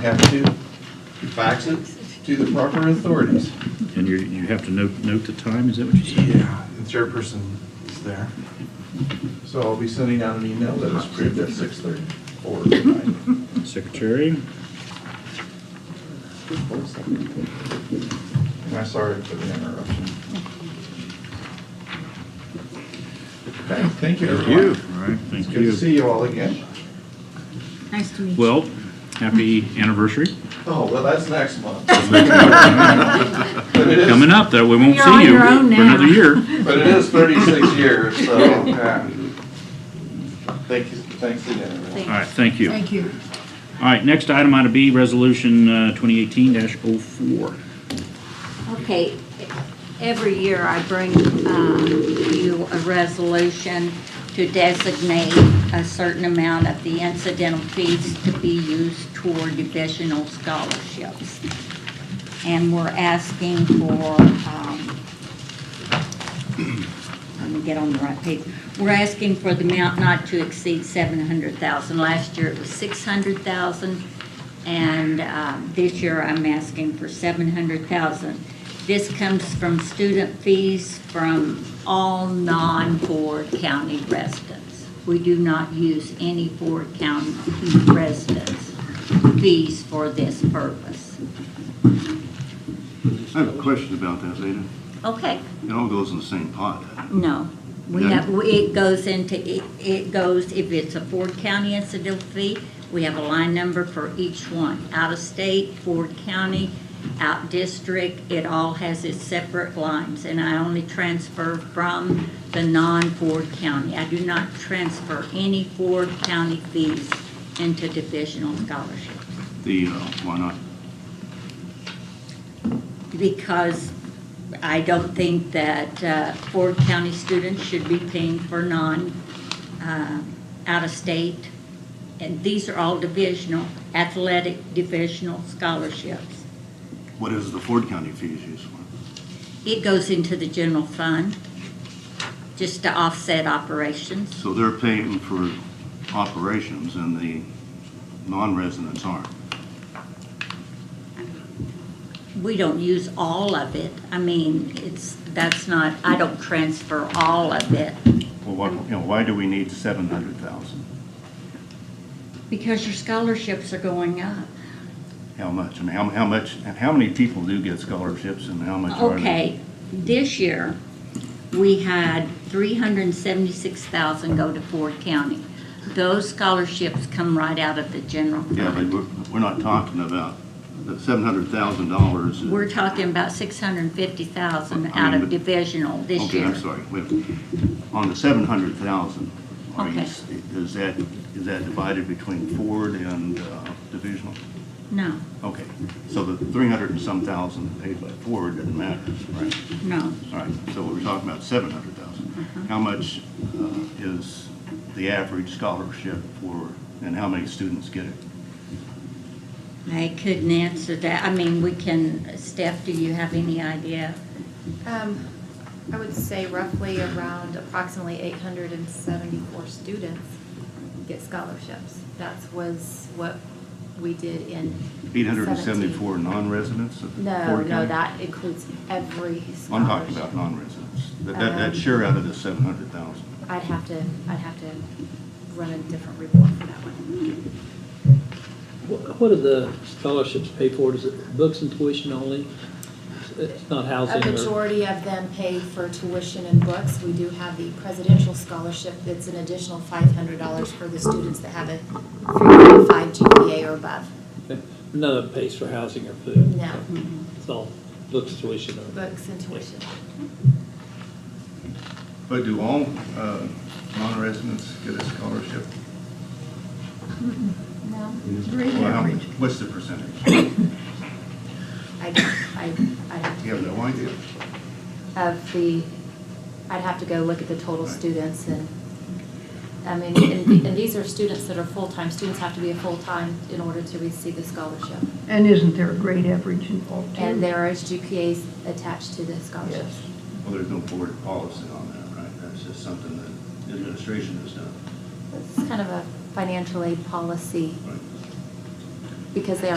have to fax it to the proper authorities. And you, you have to note, note the time, is that what you said? The chairperson is there. So I'll be sending out an email that was approved at six thirty or nine. Secretary, And I'm sorry for the interruption. Okay, thank you, thank everyone. you. All right, It's thank good to you. see you all again. Nice to meet you. Well, happy anniversary. Oh, well, that's next month. But it is- Coming up, though, we won't You're on see you your for own now. another year. But it is thirty-six years, so, yeah. Thank you, thanks again, everyone. All right, thank you. Thank you. All right, next item ought to be Resolution uh, 2018-04. Okay, every year I bring um, you a resolution to designate a certain amount of the incidental fees to be used toward divisional scholarships. And we're asking for, um, let me get on the right page. We're asking for the amount not to exceed seven hundred thousand. Last year it was six hundred thousand, and um, this year I'm asking for seven hundred thousand. This comes from student fees from all non-Ford County residents. We do not use any Ford County residents' fees for this purpose. I have a question about that, Lena. Okay, It all goes in the same pot. No, we No? have, we- it goes into, it- it goes, if it's a Ford County incidental fee, we have a line number for each one. Out of state, Ford County, out district, it all has its separate lines. And I only transfer from the non-Ford County. I do not transfer any Ford County fees into divisional scholarships. The, uh, why not? because I don't think that uh, Ford County students should be paying for non, uh, out-of-state. And these are all divisional, athletic divisional scholarships. What is the Ford County fees used for? It goes into the general fund just to offset operations. So they're paying for operations and the non-residents aren't. We don't use all of it. I mean, it's, that's not, I don't transfer all of it Well, what, you know, why do we need seven hundred thousand? because your scholarships are going up. How much? And how, how much, and how many people do get scholarships and how much are they? Okay, this year, we had three hundred and seventy-six thousand go to Ford County. Those scholarships come right out of the general Yeah, but fund. we're, we're not talking about the seven hundred thousand dollars. We're talking about six hundred and fifty thousand I out mean, of but- divisional this Okay, year. I'm sorry. Wait. On the seven hundred thousand, are you, Okay. s- is that, is that divided between Ford and uh, divisional? No, Okay, so the three hundred and some thousand paid by Ford doesn't matter, right? no, All right, so we're talking about seven hundred thousand. How much uh, is the average scholarship for, and how many students get it? I couldn't answer that. I mean, we can, Steph, do you have any idea? Um, I would say roughly around approximately eight hundred and seventy-four students get scholarships. That was what we did in. Eight hundred and seventy-four non-residents of Ford No, no, County? that includes every scholarship. I'm talking about non-residents. That, that, that's sure out of the seven hundred thousand. I'd have to, I'd have to run a different report for that one. Wh- What do the scholarships pay for? Is it books and tuition only? It's not housing A or? majority of them pay for tuition and books. We do have the presidential scholarship that's an additional five hundred dollars for the students that have a three point five GPA or above. None of it pays for housing or food. No. It's all books, tuition or? Books and tuition. But do all uh, non-residents get a scholarship? No. Well, how much- What's the percentage? I, I, I, You have no idea. of the, I'd have to go look at the total students and, I mean, and, and these are students that are full-time. Students have to be a full-time in order to receive the scholarship. And isn't there a grade average involved too? And there is GPAs attached to the scholarships. Well, there's no board policy on that, right? That's just something that the administration has done. It's kind of a financial aid policy Right. because they